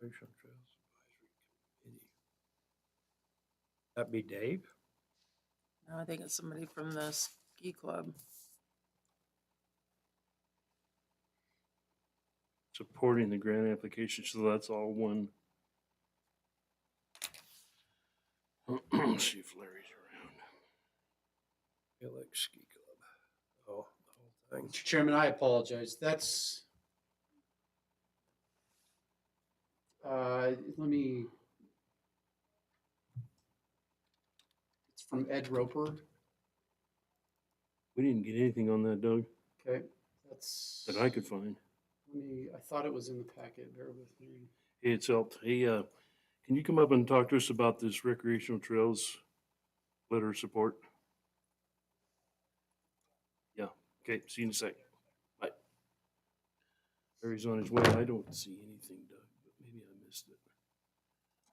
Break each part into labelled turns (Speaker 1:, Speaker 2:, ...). Speaker 1: Recreational Trails Advisory Committee. That be Dave?
Speaker 2: No, I think it's somebody from the ski club.
Speaker 3: supporting the grant application, so that's all one. See if Larry's around.
Speaker 1: Alex Ski Club. Oh, the whole thing.
Speaker 4: Mr. Chairman, I apologize. That's. Uh, let me. It's from Ed Roper.
Speaker 3: We didn't get anything on that, Doug,
Speaker 4: Okay, that's.
Speaker 3: that I could find.
Speaker 4: Let me, I thought it was in the packet. Bear with me.
Speaker 3: It's helped. Hey, uh, can you come up and talk to us about this recreational trails letter of support? Yeah, okay, see you in a second. Bye. Larry's on his way. I don't see anything, Doug, but maybe I missed it.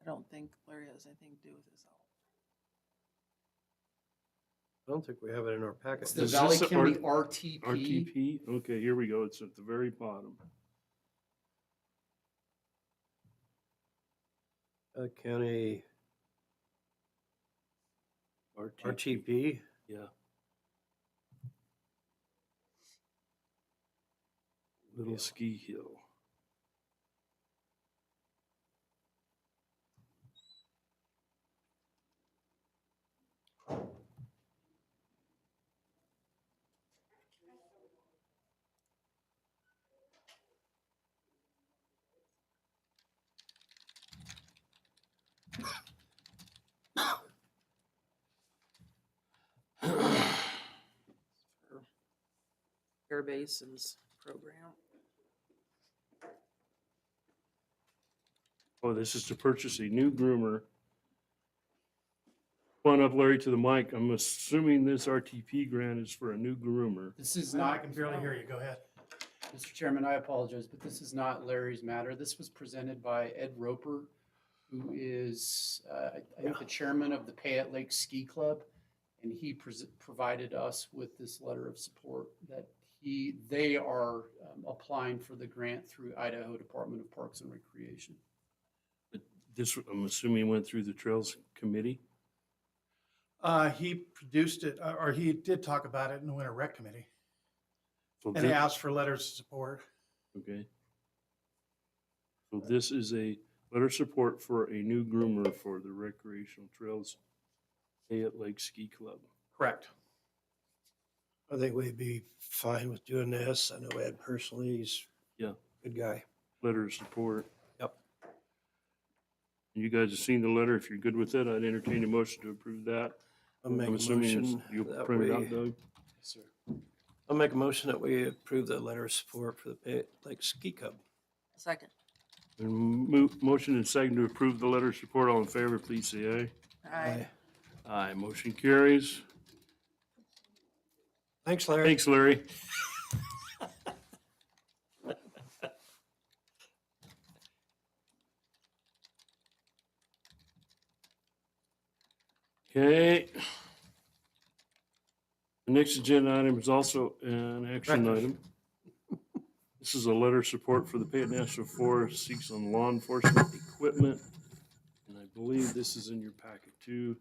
Speaker 2: I don't think Larry has anything to do with this.
Speaker 1: I don't think we have it in our packet.
Speaker 4: It's the
Speaker 3: Is this
Speaker 1: Does-
Speaker 4: Valley
Speaker 3: the
Speaker 4: County
Speaker 3: R-
Speaker 4: RTP.
Speaker 3: RTP, okay, here we go, it's at the very bottom.
Speaker 1: uh, County RTP.
Speaker 3: Yeah. Little
Speaker 1: Yeah.
Speaker 3: ski hill.
Speaker 2: for Air Basin's program.
Speaker 3: Oh, this is to purchase a new groomer. Come on up, Larry, to the mic. I'm assuming this RTP grant is for a new groomer.
Speaker 4: This is
Speaker 5: No,
Speaker 4: not.
Speaker 5: I can barely hear you. Go ahead.
Speaker 4: Mr. Chairman, I apologize, but this is not Larry's matter. This was presented by Ed Roper, who is, uh, I think, the chairman of the Payette Lake Ski Club. And he pres- provided us with this letter of support that he, they are um, applying for the grant through Idaho Department of Parks and Recreation.
Speaker 3: But This, I'm assuming went through the Trails Committee?
Speaker 5: Uh, he produced it, uh, or he did talk about it in the Winter Rec Committee,
Speaker 3: So
Speaker 5: and he
Speaker 3: thi-
Speaker 5: asked for letters of support.
Speaker 3: Okay. So this is a letter of support for a new groomer for the recreational trails Fayette Lake Ski Club.
Speaker 5: Correct.
Speaker 1: I think we'd be fine with doing this. I know Ed personally, he's.
Speaker 3: Yeah.
Speaker 1: Good guy.
Speaker 3: letter of support.
Speaker 1: Yep.
Speaker 3: You guys have seen the letter. If you're good with it, I'd entertain a motion to approve that.
Speaker 1: I'll make
Speaker 3: I'm
Speaker 1: a
Speaker 3: assuming it's-
Speaker 1: motion.
Speaker 3: You'll
Speaker 1: that
Speaker 3: print it
Speaker 1: we-
Speaker 3: out, Doug?
Speaker 4: Yes, sir.
Speaker 1: I'll make a motion that we approve the letter of support for the Pay Lake Ski Club.
Speaker 2: Second.
Speaker 3: And mo- motion and second to approve the letter of support. All in favor, please say
Speaker 2: I
Speaker 3: aye. Aye, motion carries.
Speaker 1: Thanks, Larry.
Speaker 3: Thanks, Larry. Okay. The next agenda item is also an action
Speaker 1: Right.
Speaker 3: item. This is a letter of support for the Payette National Forest seeks on law enforcement equipment. And I believe this is in your packet too.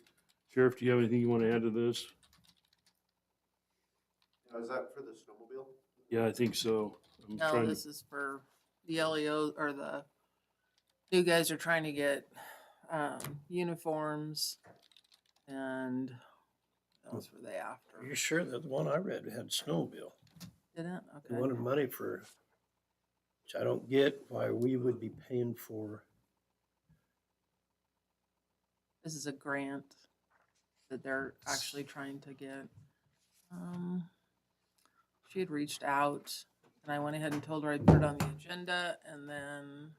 Speaker 3: Sheriff, do you have anything you want to add to this?
Speaker 6: Now, is that for the snowmobile?
Speaker 3: Yeah, I think so. I'm
Speaker 2: No,
Speaker 3: trying to-
Speaker 2: this is for the LEO or the, you guys are trying to get, um, uniforms and those were they
Speaker 1: Are
Speaker 2: after.
Speaker 1: you sure that the one I read had snowmobile?
Speaker 2: Didn't?
Speaker 1: They
Speaker 2: Okay.
Speaker 1: wanted money for, which I don't get why we would be paying for.
Speaker 2: This is a grant that they're actually trying to get. Um, She had reached out and I went ahead and told her I'd put it on the agenda and then,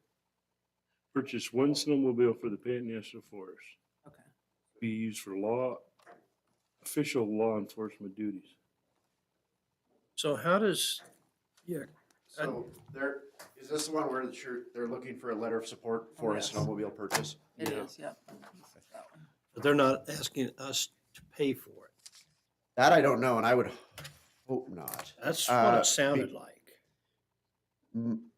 Speaker 3: Purchase one snowmobile for the Payette National Forest.
Speaker 2: okay.
Speaker 3: Be used for law, official law enforcement duties.
Speaker 1: So how does, yeah, Uh,
Speaker 6: So there, is this the one where the shirt, they're looking for a letter of support for a
Speaker 2: Yes.
Speaker 6: snowmobile purchase?
Speaker 2: It
Speaker 3: Yeah.
Speaker 2: is, yep. This is that one.
Speaker 1: but they're not asking us to pay for it.
Speaker 6: That I don't know, and I would hope not.
Speaker 1: That's
Speaker 6: Uh,
Speaker 1: what
Speaker 6: be-
Speaker 1: it sounded like.
Speaker 6: N-